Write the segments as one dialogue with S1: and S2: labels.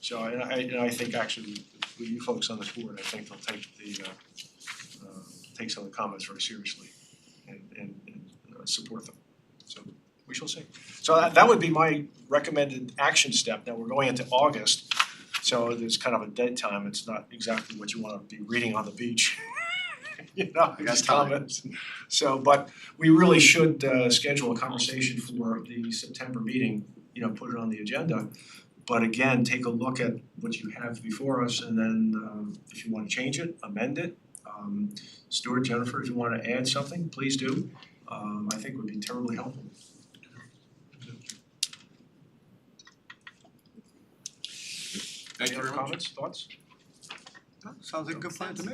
S1: So and I and I think actually with you folks on this board, I think they'll take the uh uh take some of the comments very seriously and and and uh, support them. So we shall see. So that that would be my recommended action step. Now, we're going into August, so there's kind of a dead time. It's not exactly what you wanna be reading on the beach. You know,
S2: I got
S1: these
S2: time.
S1: comments. So, but we really should uh schedule a conversation for the September meeting, you know, put it on the agenda. But again, take a look at what you have before us and then um if you wanna change it, amend it. Um Stuart, Jennifer, if you wanna add something, please do. Um I think would be terribly helpful.
S3: Thank
S1: Any
S3: you very
S1: other
S3: much.
S1: comments, thoughts?
S2: Sounds like a good plan to me.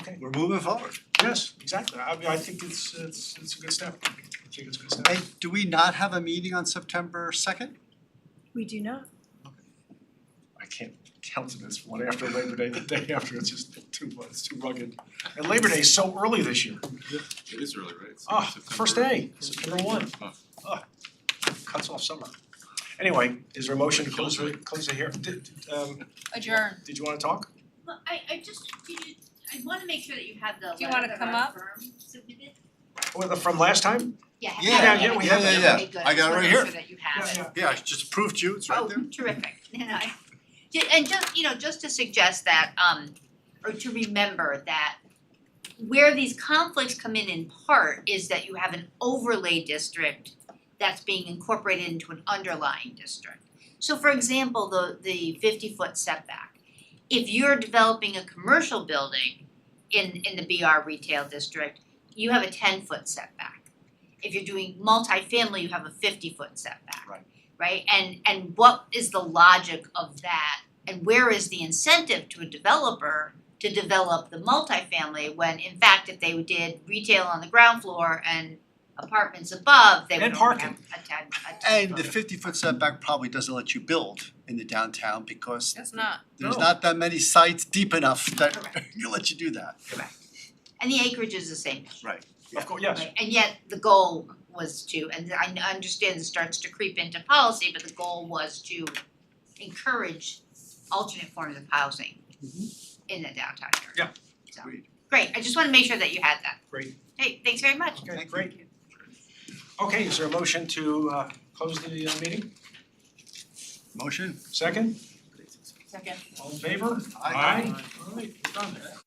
S1: Okay.
S2: We're moving forward.
S1: Yes, exactly. I mean, I think it's it's it's a good step. I think it's a good step.
S2: Hey, do we not have a meeting on September second?
S4: We do not.
S1: I can't count to this one after Labor Day, the day after, it's just too much, it's too rugged. And Labor Day is so early this year.
S3: It is early, right? It's
S1: Ah, first
S3: September-
S1: day, September one.
S3: Oh.
S1: Ah, cuts off summer. Anyway, is there a motion to close the close the hearing? Did um
S5: adjourn.
S1: did you wanna talk?
S6: Well, I I just, did you, I wanna make sure that you have the
S5: Do you wanna
S6: letter that
S5: come
S6: our
S5: up?
S6: firm submitted.
S1: Or Oh, the from last time?
S6: Yeah, have
S2: Yeah,
S6: that.
S1: yeah, we have
S2: that.
S6: Okay,
S2: Yeah, yeah.
S6: good.
S2: I got it right here.
S6: So that you have it.
S2: Yeah, I just approved you, it's right there.
S6: Oh, terrific, and I, ju- and just, you know, just to suggest that, um, or to remember that where these conflicts come in in part is that you have an overlay district that's being incorporated into an underlying district. So for example, the the fifty foot setback, if you're developing a commercial building in in the BR retail district, you have a ten foot setback. If you're doing multifamily, you have a fifty foot setback right? And and what is the logic of that? And where is the incentive to a developer to develop the multifamily when in fact if they did retail on the ground floor and apartments above, they would
S1: And
S6: only
S1: parking.
S6: have a ten a ten
S2: And the fifty foot setback probably doesn't let you build in the downtown because
S5: It's not.
S2: there's
S1: No.
S2: not that many sites deep enough that
S6: Correct.
S2: you let you do that.
S6: And the acreage is the same.
S1: Of course, yes.
S6: Right, and yet the goal was to, and I n- understand this starts to creep into policy, but the goal was to encourage alternate forms of housing in the downtown area.
S1: Yeah.
S6: So,
S2: Agreed.
S6: great, I just wanna make sure that you had that.
S1: Great.
S6: Hey, thanks very much.
S1: Okay, great. Okay, is there a motion to uh close the uh, meeting?
S2: Motion?
S1: Second,
S5: Second.
S1: all in favor?
S2: Aye.
S1: Alright, we're done.